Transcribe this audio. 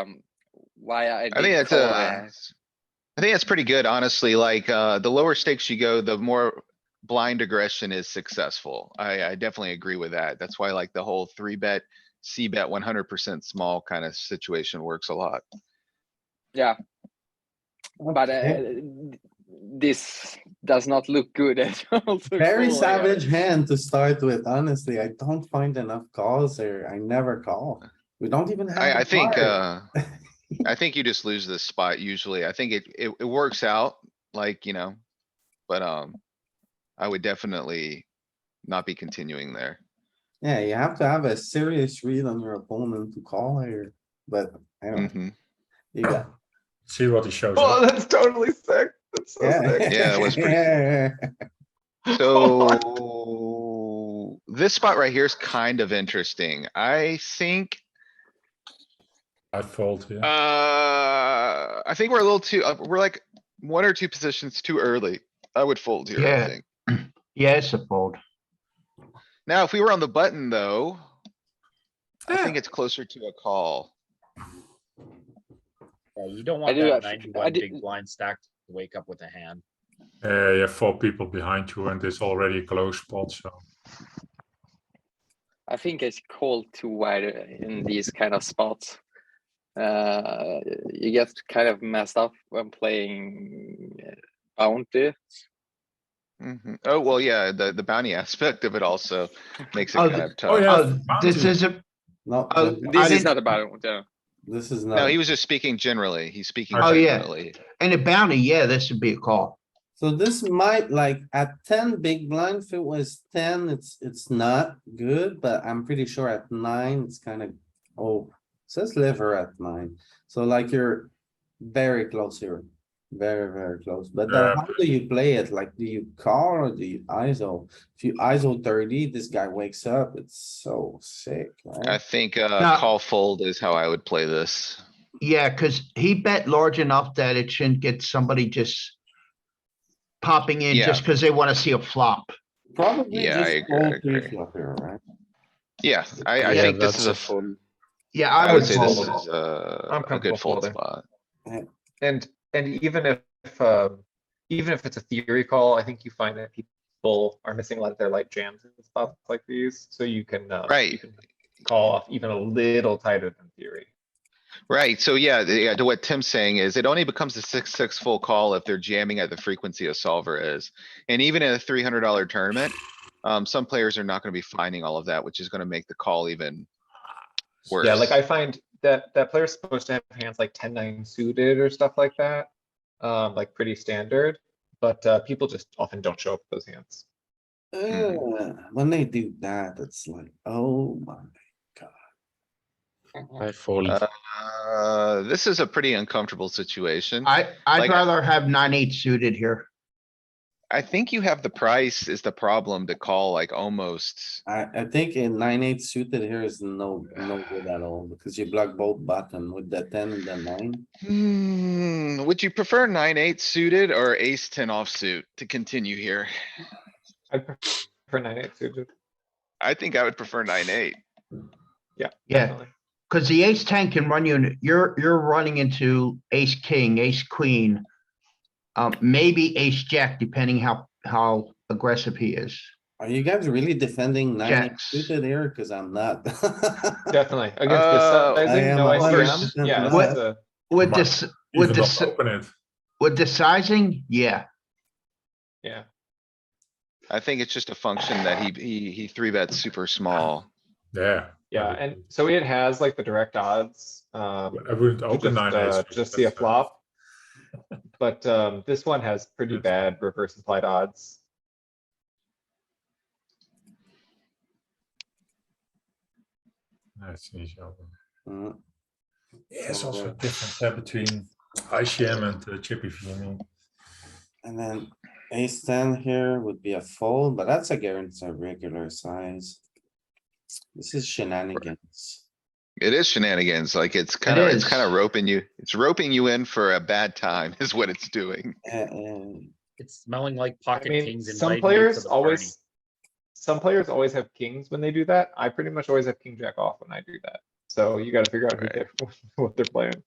um, why I. I think did that's call a, uh, there. I think that's pretty good, honestly, like, uh, the lower stakes you go, the more blind aggression is successful. I, I definitely agree with that. That's why like the whole three bet, C bet one hundred percent small kind of situation works a lot. But uh, this does not look good at all. to Very call, yeah. savage hand to start with, honestly. I don't find enough calls here. I never call. We don't even have. I, I the think, card. uh, I think you just lose this spot usually. I think it, it, it works out, like, you know, but, um, I would definitely not be continuing there. Yeah, you have to have a serious read on your opponent to call here, but I don't, Mhm. you got. See what he shows. Oh, up. that's totally sick. That's so sick. Yeah, that was pretty- Yeah. So this spot right here is kind of interesting. I think, I fold here. uh, I think we're a little too, uh, we're like one or two positions too early. I would fold here, I Yeah. think. Yeah, it's a fold. Now, if we were on the button though, I think it's closer to a call. Yeah, you don't I want do that that- I ninety-one did- big blind stack to wake up with a hand. Yeah, you have four people behind you, and it's already a close spot. So I think it's called too wide uh, in these kind of spots. Uh, you get kind of messed up when playing uh, bounty. Mhm. Oh, well, yeah, the, the bounty aspect of it also makes it Oh, kind th- of tough. oh, yeah. Oh, this bounty. is a, No, Oh, th- This is didn't- not a bounty. this is not. No, he was just speaking generally. He's speaking Oh, yeah. generally. and a bounty, yeah, this would be a call. So this might like at ten big blind, if it was ten, it's, it's not good, but I'm pretty sure at nine, it's kind of, oh, it says liver at nine. So like you're very close here, very, very close. But Yeah. then how do you play it? Like, do you call or do you ISO? If you ISO thirty, this guy wakes up. It's so sick, I right? think, Now- uh, call fold is how I would play this. Yeah, cuz he bet large enough that it shouldn't get somebody just popping in Yeah. just cuz they wanna see a flop. Probably Yeah, I just agree, I all three agree. flop here, right? Yeah, I, I Yeah, think this is a, f- fun. Yeah, I I would would say this fold. is uh, a, I'm a good comfortable fold folding. spot. And, and even if, if, uh, even if it's a theory call, I think you find that people are missing a lot of their like jams and stuff like these, so you can, uh, you Right. can Call off even a little tighter than theory. Right, so yeah, the- yeah, to what Tim's saying is it only becomes a six, six full call if they're jamming at the frequency a solver is. And even in a three hundred dollar tournament, um, some players are not gonna be finding all of that, which is gonna make the call even worse. Yeah, like I find that, that player's supposed to have hands like ten, nine suited or stuff like that. Um, like pretty standard, but, uh, people just often don't show up with those hands. Hmm. Uh, when they do that, it's like, oh my. I fold. Uh, Uh, this is a pretty uncomfortable situation. I, Like- I'd rather have nine, eight suited here. I think you have the price is the problem to call like almost. I, I think a nine, eight suited here is no, no good at all, because you block both button with the ten and the nine. Hmm, would you prefer nine, eight suited or ace ten offsuit to continue here? I prefer nine eight suited. I think I would prefer nine, eight. Yeah, definitely. cuz the ace ten can run you, in- you're, you're running into ace, king, ace, queen. Um, maybe ace, jack, depending how, how aggressive he is. Are you guys really defending nine eight Jacks. suited here? Cause I'm not. Definitely, against this Uh, sizing, I am no a hundred ICM, percent yeah, right. this is a- With Right. this, even with not this, uh, open it. with the sizing, yeah. yeah. I think it's just a function that he, he, he three bets super small. Yeah. Yeah, I and would- so it has like the direct odds, um, I wouldn't to open just, nine. uh, eights, just see a that's, uh, flop. But, um, this one has pretty Yes. bad reverse implied odds. That's easy. open. Mm, Yeah, it's also a difference uh, between ICM and uh, Chippy V. I mean, And then ace ten here would be a fold, but that's against a regular size. This is shenanigans. It is shenanigans, like it's kinda, it's is. kinda roping you, it's roping you in for a bad time is what it's doing. Eh, eh. It's smelling like I pocket mean, kings. some inviting you to players the party. always, some players always have kings when they do that. I pretty much always have king jack off when I do that. So you gotta figure out who Right. they're- what they're playing.